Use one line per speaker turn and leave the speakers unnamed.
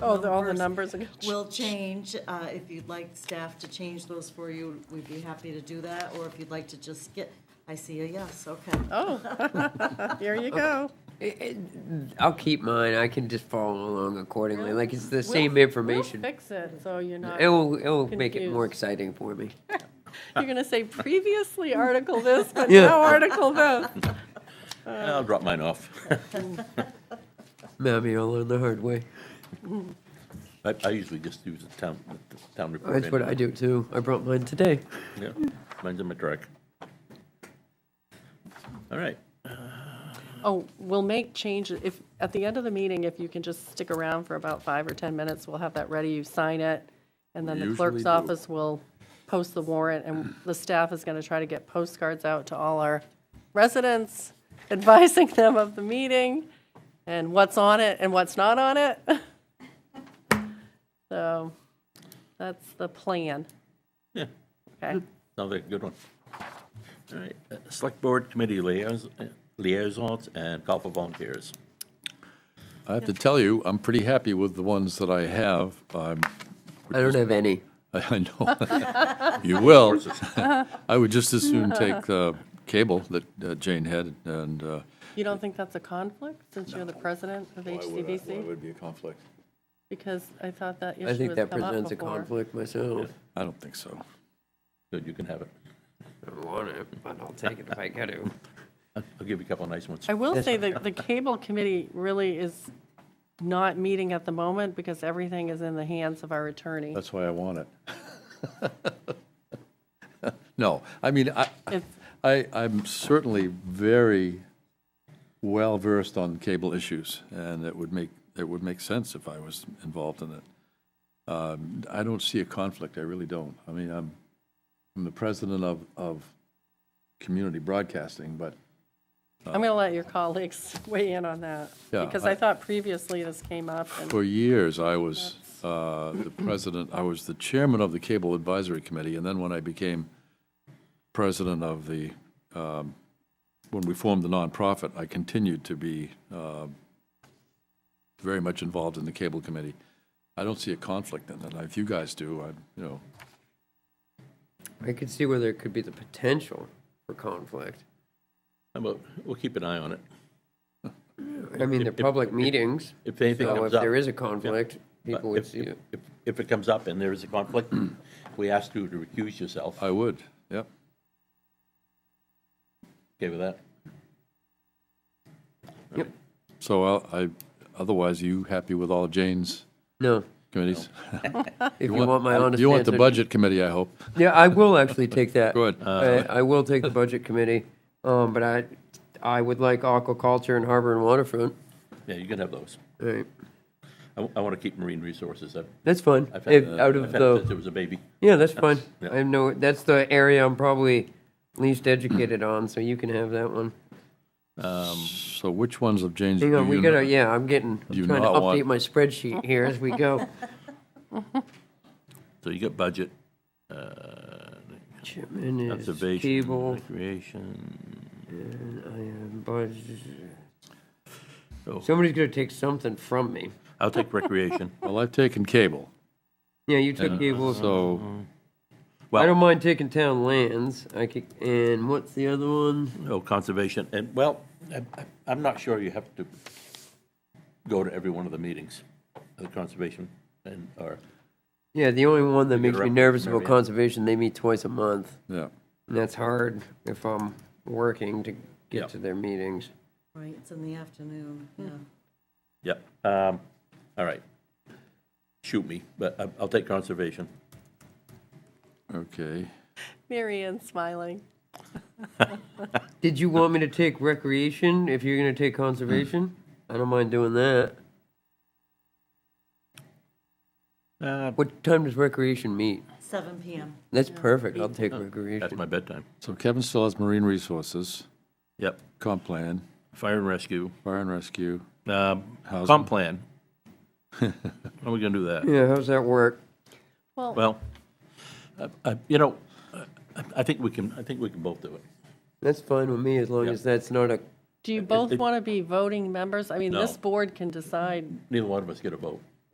Oh, the- all the numbers again.
will change. Uh, If you'd like staff to change those for you, we'd be happy to do that, or if you'd like to just get, I see a yes, okay.
Here you go.
I'll keep mine. I can just follow along accordingly. Like it's the same information.
We'll fix it, so you're not, you're
It'll it'll make it more
confused.
exciting for me.
gonna say previously article this, but
Yeah.
now article this.
I'll drop mine off.
Mammy, I'll learn the hard way.
I, I usually just use the town, the town report.
That's what I
anyway.
do too. I brought mine today.
Yeah, mine's in my truck. All right,
Oh, we'll make changes, if, at the end of the meeting, if you can just stick around for about five or 10 minutes, we'll have that ready, you sign it, and then
We
the clerk's
usually do.
office will post the warrant, and the staff is going to try to get postcards out to all our residents, advising them of the meeting, and what's on it and what's not on it. So, that's the plan,
yeah,
okay?
another good one. All right, uh, select board committee liaisons, liaisons and call for volunteers.
I have to tell you, I'm pretty happy with the ones that I have. I'm-
I don't have any.
I know, you will. I would just as soon take uh, cable that uh, Jane had and. uh,
You don't think that's a conflict, since you're the president of HCBC?
be a conflict?
Because I thought that issue
I
has come
think
up
that presents a
before.
conflict myself.
I don't think so.
Good, you can have it.
I don't want it, but I'll take it if I got to.
I'll I'll give you a couple of nice ones.
I will say that the cable committee really is not meeting at the moment because everything is in the hands of our attorney.
That's why I want it. No, I mean, I,
It's,
I, I'm certainly very well versed on cable issues, and it would make, it would make sense if I was involved in it. Um, I don't see a conflict, I really don't. I mean, I'm, I'm the president of, of community broadcasting, but
I'm going to let your colleagues weigh in on that.
Yeah,
Because
I-
I thought previously this came up and
for years, I was uh, the president, I was the chairman of the Cable Advisory Committee, and then when I became president of the, um, when we formed the nonprofit, I continued to be uh, very much involved in the Cable Committee. I don't see a conflict in that. If you guys do, I, you know,
I could see where there could be the potential for conflict.
How about, we'll keep an eye on it.
I mean, they're public meetings.
if anything
So if
comes up-
there is a
Yeah.
conflict, people would
If-
see it.
If, if it comes up and there is a conflict, we ask you to recuse yourself.
I would, yep.
Okay with that?
Yep.
So I'll- I, otherwise, you happy with all Jane's
No,
committees?
if you want my honest
You want the
answer-
Budget Committee, I hope.
Yeah, I will actually take that.
Good.
I, I will take the budget committee, um, but I, I would like aquaculture and harbor and waterfront.
Yeah, you can have those.
All right,
I, want to keep marine resources. I've,
that's fine.
I've had,
If,
that-
out
I've
of
had
the,
since there was a baby.
yeah, that's fine.
Yeah.
I know that's the area I'm probably least educated on, so you can have that one.
So which ones of Jane's?
Hang
do
on, we
you
gotta.
know?
Yeah, I'm getting.
do you
I'm trying to
not
update
want-
my spreadsheet here as we go.
So you got budget, uh,
Chipman is
conservation,
cable.
recreation.
and I am budget-
Oh,
Somebody's gonna take something from me.
I'll take recreation.
Well, I've taken cable.
Yeah, you took
And
cable. I
So,
don't
Well,
mind taking town lands. I could, and what's the other one?
oh, conservation, and, well, I- I- I'm not sure you have to go to every one of the meetings of the conservation and, or,
Yeah, the only one that makes me
rep-
nervous about
Marion.
conservation, they meet twice a month.
yeah,
And that's hard if I'm working to
Yeah.
get to their meetings.
Right, it's in the afternoon, yeah.
yep, um, all right. Shoot me, but I- I'll take conservation.
okay.
Mary Ann's smiling.
Did you want me to take recreation if you're gonna take conservation? I don't mind doing that.
Uh,
What time does recreation meet?
Seven PM.
That's perfect. I'll take
That's
recreation.
my bedtime.
So Kevin still has marine resources,
Yep,
comp plan,
fire and rescue,
fire and rescue.
um,
Housing.
comp plan. How are we gonna do that?
Yeah, how's that work?
Well,
Well, I- I- you know, I- I think we can, I think we can both do it.
That's fine with me as long
Yeah.
as that's not a,
do you both
it-
want to be voting members? I mean, this
No.
board can decide.
Neither one of us get a vote.